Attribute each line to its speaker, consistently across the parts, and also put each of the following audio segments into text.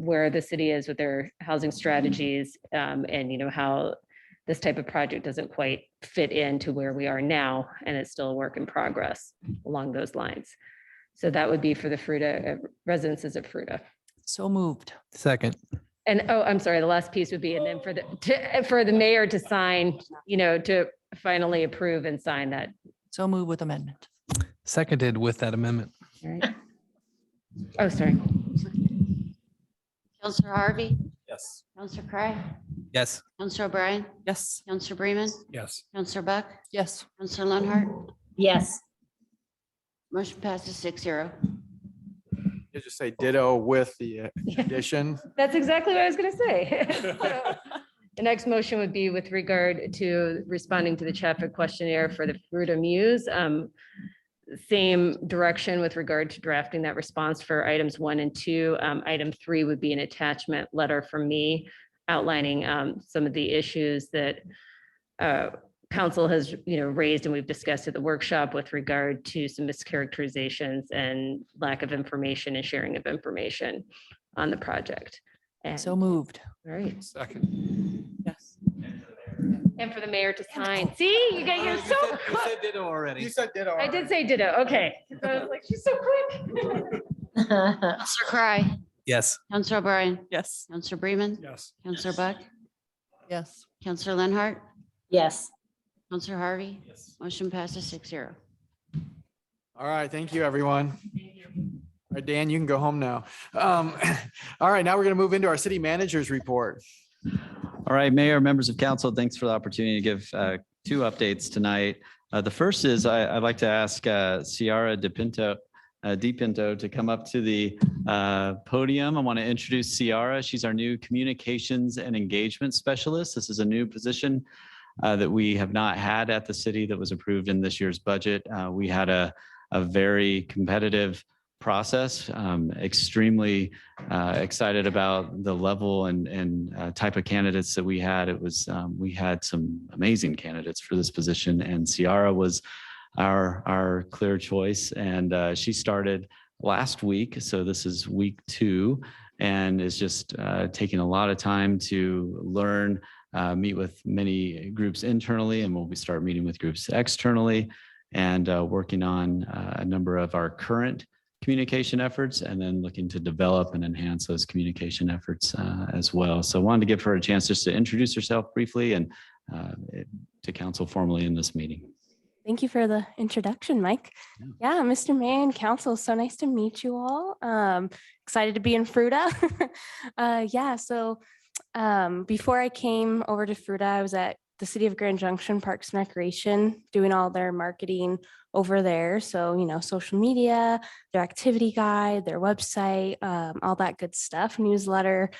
Speaker 1: where the city is with their housing strategies, um, and you know, how this type of project doesn't quite fit into where we are now, and it's still a work in progress along those lines. So that would be for the Fruta, uh, residences of Fruta.
Speaker 2: So moved.
Speaker 3: Second.
Speaker 1: And, oh, I'm sorry, the last piece would be, and then for the, to, uh, for the mayor to sign, you know, to finally approve and sign that.
Speaker 2: So moved with amendment.
Speaker 3: Seconded with that amendment.
Speaker 1: right? Oh, sorry.
Speaker 4: Counselor Harvey,
Speaker 5: Yes.
Speaker 4: Counselor Cry,
Speaker 3: Yes.
Speaker 4: Counselor O'Brien,
Speaker 2: Yes.
Speaker 4: Counselor Bremen,
Speaker 5: Yes.
Speaker 4: Counselor Buck,
Speaker 2: Yes.
Speaker 4: Counselor Lenhart.
Speaker 6: yes,
Speaker 4: Motion passes six zero.
Speaker 7: You just say ditto with the uh, addition.
Speaker 1: That's exactly what I was going to say. So, The next motion would be with regard to responding to the traffic questionnaire for the Fruta Muse. Um, Same direction with regard to drafting that response for items one and two. Um, Item three would be an attachment letter from me outlining um, some of the issues that uh, council has, you know, raised and we've discussed at the workshop with regard to some mischaracterizations and lack of information and sharing of information on the project. And,
Speaker 2: So
Speaker 1: all
Speaker 2: moved.
Speaker 1: right.
Speaker 5: Second.
Speaker 2: Yes.
Speaker 1: And for the mayor to sign. See, you guys, you're so, quick.
Speaker 5: ditto already.
Speaker 7: said ditto.
Speaker 1: I did say ditto, okay. So I was like, she's so quick.
Speaker 4: Counselor Cry,
Speaker 3: Yes.
Speaker 4: Counselor O'Brien,
Speaker 2: Yes.
Speaker 4: Counselor Bremen,
Speaker 5: Yes.
Speaker 4: Counselor Buck,
Speaker 2: Yes.
Speaker 4: Counselor Lenhart,
Speaker 6: yes.
Speaker 4: Counselor Harvey.
Speaker 5: Yes.
Speaker 4: Motion passes six zero.
Speaker 7: All right, thank you, everyone. All right, Dan, you can go home now. Um, All right, now we're going to move into our city manager's report.
Speaker 8: All right, Mayor, members of council, thanks for the opportunity to give uh, two updates tonight. Uh, The first is I- I'd like to ask uh, Ciara DePinto, uh, DePinto to come up to the uh, podium. I want to introduce Ciara. She's our new Communications and Engagement Specialist. This is a new position uh, that we have not had at the city that was approved in this year's budget. Uh, We had a a very competitive process, um, extremely uh, excited about the level and and uh, type of candidates that we had. It was um, we had some amazing candidates for this position, and Ciara was our our clear choice, and uh, she started last week, so this is week two, and is just uh, taking a lot of time to learn. Uh, meet with many groups internally, and we'll be start meeting with groups externally, and uh, working on uh, a number of our current communication efforts and then looking to develop and enhance those communication efforts uh, as well. So I wanted to give her a chance just to introduce herself briefly and uh, to council formally in this meeting.
Speaker 9: Thank you for the introduction, Mike. Yeah, Mr. Mayor and Council, so nice to meet you all. Um, excited to be in Fruta. uh, yeah, so um, before I came over to Fruta, I was at the City of Grand Junction Parks and Recreation doing all their marketing over there. So, you know, social media, their activity guide, their website, um, all that good stuff, newsletter.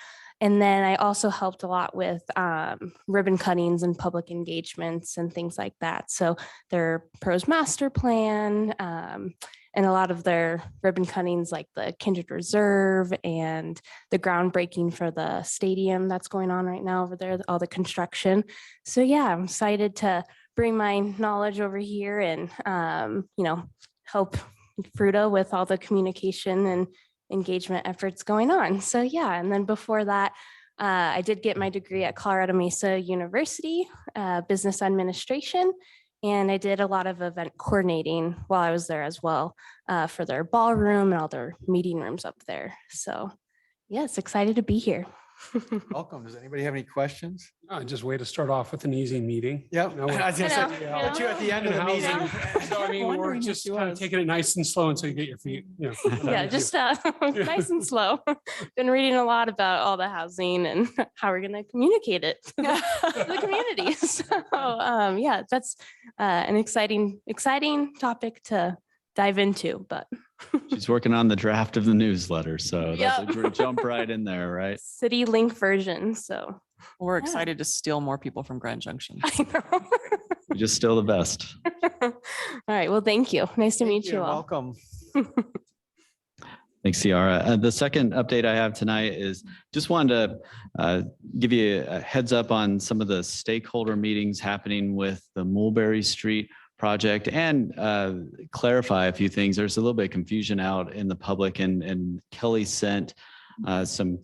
Speaker 9: And then I also helped a lot with um, ribbon cuttings and public engagements and things like that. So, their pros master plan um, and a lot of their ribbon cuttings like the kindred reserve and the groundbreaking for the stadium that's going on right now over there all the construction so yeah i'm excited to bring my knowledge over here and um, you know help fruta with all the communication and engagement efforts going on so yeah and then before that uh, i did get my degree at colorado mesa university uh, business administration and I did a lot of event coordinating while I was there as well uh, for their ballroom and all their meeting rooms up there. So, yes, excited to be here.
Speaker 7: Welcome. Does anybody have any questions?
Speaker 10: Uh, Just way to start off with an easy meeting.
Speaker 7: Yeah.
Speaker 10: You know, we're-
Speaker 7: I was gonna say,
Speaker 6: Hello.
Speaker 7: put you at the end of the
Speaker 10: Housing.
Speaker 7: meeting.
Speaker 10: So I mean, we're
Speaker 2: Wondering if
Speaker 10: just
Speaker 2: you
Speaker 10: kind
Speaker 2: was.
Speaker 10: of taking it nice and slow until you get your feet, you know.
Speaker 9: yeah,
Speaker 10: underneath you.
Speaker 9: just uh, nice and slow. Been reading a lot about all the housing and how we're going to communicate it to the, to the community. So, um, yeah, that's uh, an exciting, exciting topic to dive into. But
Speaker 8: She's working on the draft of the newsletter, so that's a
Speaker 9: Yep.
Speaker 8: great jump right in there, right?
Speaker 9: city link version. So,
Speaker 2: We're
Speaker 9: Yeah.
Speaker 2: excited to steal more people from Grand Junction.
Speaker 9: I know.
Speaker 8: You're Just still the best.
Speaker 9: all right. Well, thank you. Nice to meet
Speaker 7: Thank
Speaker 9: you
Speaker 7: and
Speaker 9: all.
Speaker 7: Welcome.
Speaker 8: Thanks, Ciara. Uh, The second update I have tonight is just wanted to uh, give you a heads up on some of the stakeholder meetings happening with the Mulberry Street project and uh, clarify a few things. There's a little bit of confusion out in the public and, and Kelly sent uh, some